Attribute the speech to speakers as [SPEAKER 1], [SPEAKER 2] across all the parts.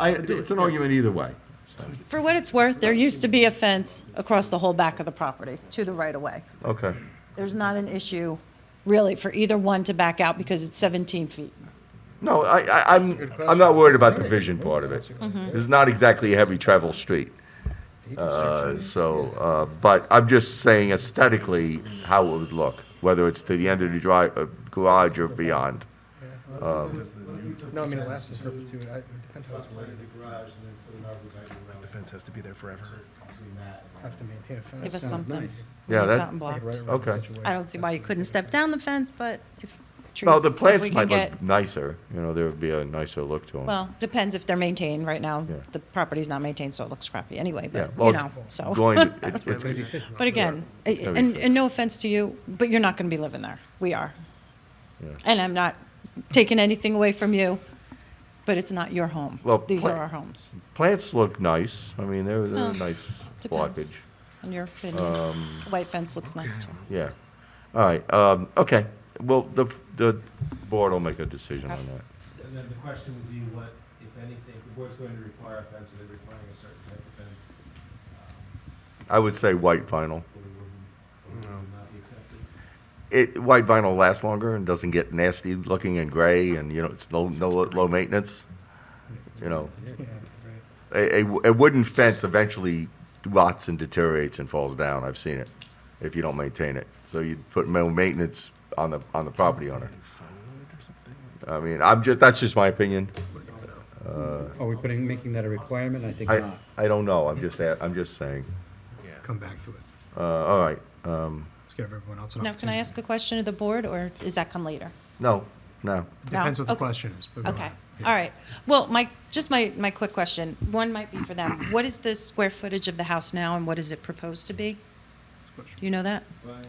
[SPEAKER 1] I, it's an argument either way.
[SPEAKER 2] For what it's worth, there used to be a fence across the whole back of the property to the right of way.
[SPEAKER 1] Okay.
[SPEAKER 2] There's not an issue really for either one to back out because it's 17 feet.
[SPEAKER 1] No, I, I, I'm, I'm not worried about the vision part of it. It's not exactly a heavy travel street. Uh, so, uh, but I'm just saying aesthetically how it would look, whether it's to the end of the drive, uh, garage or beyond.
[SPEAKER 3] No, I mean, it lasts in perpetuity. I- It depends on what's
[SPEAKER 4] in the garage and then put an arborvitae around
[SPEAKER 5] The fence has to be there forever.
[SPEAKER 4] between that
[SPEAKER 3] I
[SPEAKER 4] and.
[SPEAKER 3] have to maintain a fence.
[SPEAKER 2] Give us
[SPEAKER 3] Sounds
[SPEAKER 2] something.
[SPEAKER 3] nice.
[SPEAKER 1] Yeah,
[SPEAKER 2] It's
[SPEAKER 1] that-
[SPEAKER 2] something
[SPEAKER 3] Like right
[SPEAKER 2] blocked.
[SPEAKER 3] around the
[SPEAKER 1] Okay.
[SPEAKER 3] entryway.
[SPEAKER 2] I don't see why you couldn't step down the fence, but if trees,
[SPEAKER 1] Well, the
[SPEAKER 2] if we
[SPEAKER 1] plants
[SPEAKER 2] can
[SPEAKER 1] might
[SPEAKER 2] get,
[SPEAKER 1] look nicer, you know, there would be a nicer look to them.
[SPEAKER 2] well, depends if they're maintained. Right now,
[SPEAKER 1] Yeah.
[SPEAKER 2] the property's not maintained, so it looks crappy anyway,
[SPEAKER 1] Yeah,
[SPEAKER 2] but,
[SPEAKER 1] well,
[SPEAKER 2] you know,
[SPEAKER 1] it's
[SPEAKER 2] so.
[SPEAKER 1] going to- it's- it's-
[SPEAKER 2] But again, I-
[SPEAKER 1] That'd be
[SPEAKER 2] and,
[SPEAKER 1] fair.
[SPEAKER 2] and no offense to you, but you're not going to be living there. We are.
[SPEAKER 1] Yeah.
[SPEAKER 2] And I'm not taking anything away from you, but it's not your home.
[SPEAKER 1] Well,
[SPEAKER 2] These are
[SPEAKER 1] pla-
[SPEAKER 2] our homes,
[SPEAKER 1] Plants look nice, I mean, they're, they're a
[SPEAKER 2] Well,
[SPEAKER 1] nice
[SPEAKER 2] depends.
[SPEAKER 1] blockage. Um,
[SPEAKER 2] in your opinion.
[SPEAKER 1] Uh,
[SPEAKER 2] White fence looks nice too.
[SPEAKER 1] Yeah. All right, um, okay. Well, the, the board will make a decision on that.
[SPEAKER 4] And then the question would be what, if anything, the board's going to require a fence, are they requiring a certain type of fence?
[SPEAKER 1] I would say white vinyl.
[SPEAKER 4] Or would, or would not be accepted?
[SPEAKER 1] It, white vinyl lasts longer and doesn't get nasty looking and gray and, you know, it's no, no, low maintenance. You know,
[SPEAKER 3] Yeah, right.
[SPEAKER 1] a, a, a wooden fence eventually rots and deteriorates and falls down. I've seen it if you don't maintain it. So you put no maintenance on the, on the property owner. I mean, I'm just, that's just my opinion.
[SPEAKER 6] Are we putting, making that a requirement? I think
[SPEAKER 1] I,
[SPEAKER 6] not.
[SPEAKER 1] I don't know. I'm just, a- I'm just saying.
[SPEAKER 3] Come back to it.
[SPEAKER 1] Uh, all right. Um,
[SPEAKER 3] Let's give everyone else an
[SPEAKER 2] Now,
[SPEAKER 3] opportunity.
[SPEAKER 2] can I ask a question of the board, or does that come later?
[SPEAKER 1] no, no.
[SPEAKER 3] It
[SPEAKER 2] No,
[SPEAKER 3] Depends what the
[SPEAKER 2] okay.
[SPEAKER 3] question is. but go
[SPEAKER 2] Okay,
[SPEAKER 3] ahead. Yeah.
[SPEAKER 2] all right. Well, my, just my, my quick question, one might be for them. What is the square footage of the house now, and what is it proposed to be? Do you know that?
[SPEAKER 4] Right.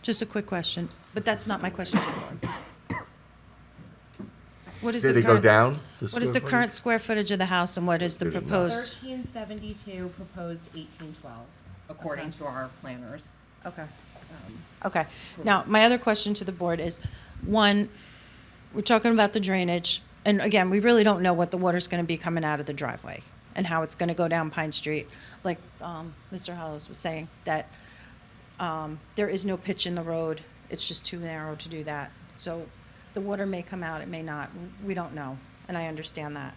[SPEAKER 2] Just a quick question, but that's not my question to the board. What is the
[SPEAKER 1] Did
[SPEAKER 2] current?
[SPEAKER 1] it go down?
[SPEAKER 2] What is the current square footage of the house, and what is the
[SPEAKER 1] There's a lot.
[SPEAKER 2] proposed?
[SPEAKER 7] Thirteen seventy-two, proposed eighteen twelve, according
[SPEAKER 2] Okay.
[SPEAKER 7] to our planners.
[SPEAKER 2] Okay.
[SPEAKER 7] Um,
[SPEAKER 2] Okay. Now, my other question to the board is, one, we're talking about the drainage, and again, we really don't know what the water's gonna be coming out of the driveway and how it's gonna go down Pine Street. Like, um, Mr. Hollows was saying, that, um, there is no pitch in the road, it's just too narrow to do that. So the water may come out, it may not, we don't know, and I understand that.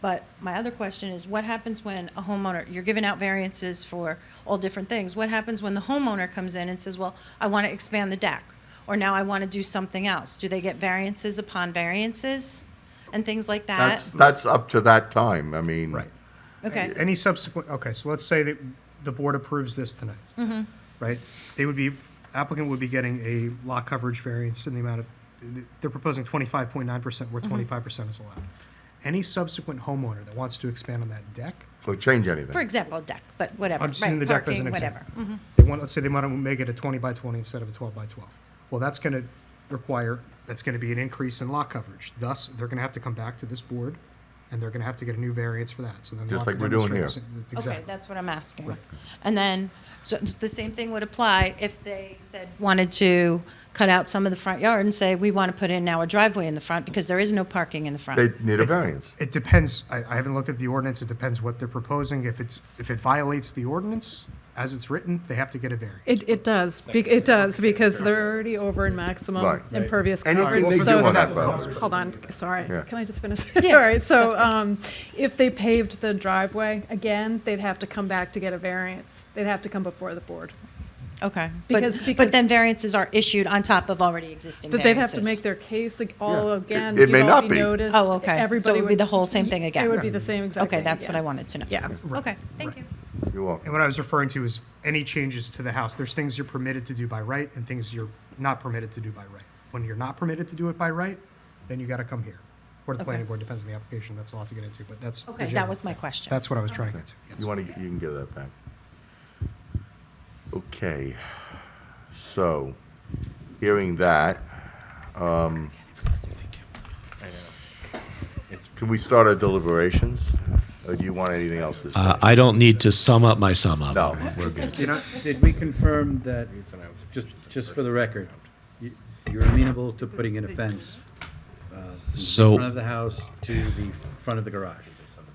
[SPEAKER 2] But my other question is, what happens when a homeowner, you're giving out variances for all different things, what happens when the homeowner comes in and says, well, I want to expand the deck, or now I want to do something else? Do they get variances upon variances and things like that?
[SPEAKER 1] That's, that's up to that time. I mean.
[SPEAKER 3] Right.
[SPEAKER 2] Okay,
[SPEAKER 3] Any subsequent, okay, so let's say that the board approves this tonight.
[SPEAKER 2] Mm-hmm.
[SPEAKER 3] Right? They would be, applicant would be getting a lot coverage variance in the amount of, they're proposing twenty-five point nine percent where
[SPEAKER 2] Mm-hmm.
[SPEAKER 3] twenty-five percent is allowed. Any subsequent homeowner that wants to expand on that deck,
[SPEAKER 1] Or change anything.
[SPEAKER 2] for example, a deck, but whatever,
[SPEAKER 3] I'm just using the
[SPEAKER 2] right,
[SPEAKER 3] deck as an
[SPEAKER 2] parking,
[SPEAKER 3] example.
[SPEAKER 2] whatever. Mhm.
[SPEAKER 3] They want, let's say they want to make it a twenty by twenty instead of a twelve by twelve. Well, that's going to require, that's going to be an increase in lot coverage. Thus, they're going to have to come back to this board and they're going to have to get a new variance for that. So then. they'll
[SPEAKER 1] Just
[SPEAKER 3] have
[SPEAKER 1] like
[SPEAKER 3] to
[SPEAKER 1] we're doing
[SPEAKER 3] demonstrate this-
[SPEAKER 2] Okay,
[SPEAKER 3] Exactly.
[SPEAKER 2] that's what I'm asking.
[SPEAKER 3] Right.
[SPEAKER 2] And then, so it's- the same thing would apply if they said, wanted to cut out some of the front yard and say, we want to put in now a driveway in the front because there is no parking in the front.
[SPEAKER 1] They need a variance.
[SPEAKER 3] It depends, I, I haven't looked at the ordinance, it depends what they're proposing, if it's, if it violates the ordinance as it's written, they have to get a variance.
[SPEAKER 8] It, it does, Be- it does, because they're already over in
[SPEAKER 1] Right.
[SPEAKER 8] maximum impervious
[SPEAKER 1] Anything
[SPEAKER 8] coverage.
[SPEAKER 3] they
[SPEAKER 8] So
[SPEAKER 3] do on
[SPEAKER 8] if-
[SPEAKER 3] that property.
[SPEAKER 8] Hold on, sorry,
[SPEAKER 1] Yeah.
[SPEAKER 8] can I just finish?
[SPEAKER 2] Yeah.
[SPEAKER 8] All right, so um, if they paved the driveway, again, they'd have to come back to get a variance. They'd have to come before the board.
[SPEAKER 2] Okay,
[SPEAKER 8] Because-
[SPEAKER 2] but, but
[SPEAKER 8] because-
[SPEAKER 2] then variances are issued on top of already existing
[SPEAKER 8] But
[SPEAKER 2] variances.
[SPEAKER 8] they'd have to make their case ag- all
[SPEAKER 1] Yeah.
[SPEAKER 8] again.
[SPEAKER 1] It- it may
[SPEAKER 8] You'd all
[SPEAKER 1] not be.
[SPEAKER 8] noticed.
[SPEAKER 2] Oh, okay. So it
[SPEAKER 8] Everybody
[SPEAKER 2] would be the whole same thing again.
[SPEAKER 8] It would be the same exact
[SPEAKER 2] Okay,
[SPEAKER 8] thing
[SPEAKER 2] that's what I
[SPEAKER 8] again.
[SPEAKER 2] wanted to know.
[SPEAKER 8] Yeah.
[SPEAKER 2] Okay, thank you.
[SPEAKER 1] You're welcome.
[SPEAKER 3] And what I was referring to is any changes to the house, there's things you're permitted to do by right and things you're not permitted to do by right. When you're not permitted to do it by right, then you gotta come here. Or the
[SPEAKER 2] Okay.
[SPEAKER 3] planning board, depends on the application, that's a lot to get into, but that's. the
[SPEAKER 2] Okay, that
[SPEAKER 3] general-
[SPEAKER 2] was my question.
[SPEAKER 3] That's what I was trying to get to. yes.
[SPEAKER 1] You want to, you can give that back. Okay, so, hearing that, um, can we start our deliberations? Or do you want anything else this
[SPEAKER 9] Uh,
[SPEAKER 1] time?
[SPEAKER 9] I don't need to sum up my sum up.
[SPEAKER 1] No.
[SPEAKER 9] We're good.
[SPEAKER 6] You know, did we confirm that, just, just for the record, you- you're amenable to putting in a fence? uh, from the
[SPEAKER 9] So-
[SPEAKER 6] Front of the house to the front of the garage?